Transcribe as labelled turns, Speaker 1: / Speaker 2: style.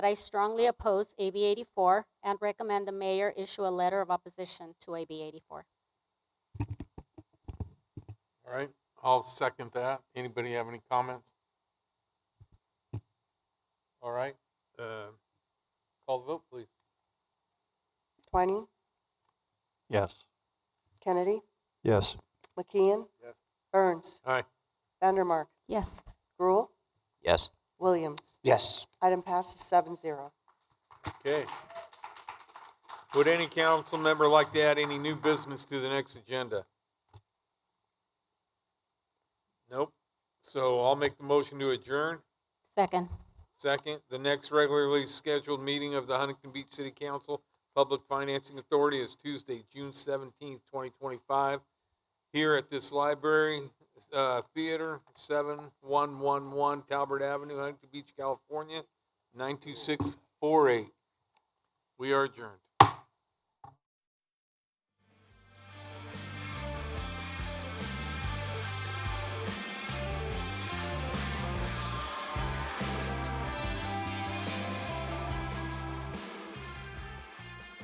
Speaker 1: that I strongly oppose AB 84 and recommend the mayor issue a letter of opposition to AB 84.
Speaker 2: All right, I'll second that. Anybody have any comments? All right, uh, call the vote, please.
Speaker 3: Twining,
Speaker 4: Yes.
Speaker 3: Kennedy,
Speaker 4: Yes.
Speaker 3: McKeon,
Speaker 2: Yes.
Speaker 3: Burns,
Speaker 2: Aye.
Speaker 3: Vandermark,
Speaker 1: Yes.
Speaker 3: Gruel,
Speaker 4: Yes.
Speaker 3: Williams.
Speaker 4: Yes.
Speaker 3: Item passes seven zero.
Speaker 2: Okay. Would any council member like to add any new business to the next agenda? Nope. So I'll make the motion to adjourn.
Speaker 1: Second.
Speaker 2: Second, the next regularly scheduled meeting of the Huntington Beach City Council Public Financing Authority is Tuesday, June seventeenth, twenty twenty-five, here at this library, uh, theater, seven one one one Talbert Avenue, Huntington Beach, California, nine two six four eight. We are adjourned.